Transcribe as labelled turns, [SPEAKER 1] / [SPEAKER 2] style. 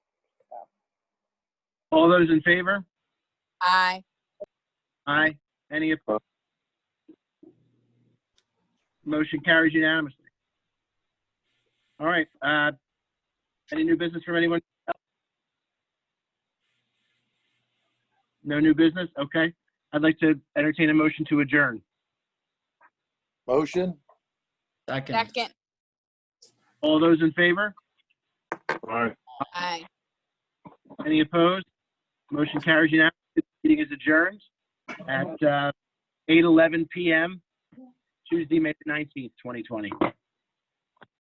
[SPEAKER 1] All those in favor?
[SPEAKER 2] Aye.
[SPEAKER 1] Aye. Any opposed? Motion carries unanimously. All right, uh, any new business from anyone? else? No new business? Okay. I'd like to entertain a motion to adjourn.
[SPEAKER 3] Motion?
[SPEAKER 4] Second.
[SPEAKER 2] Second.
[SPEAKER 1] All those in favor?
[SPEAKER 3] Aye.
[SPEAKER 2] Aye.
[SPEAKER 1] Any opposed? Motion carries unanimously. This Meeting is adjourned at, uh, 8:11 PM, Tuesday, May 19th, 2020.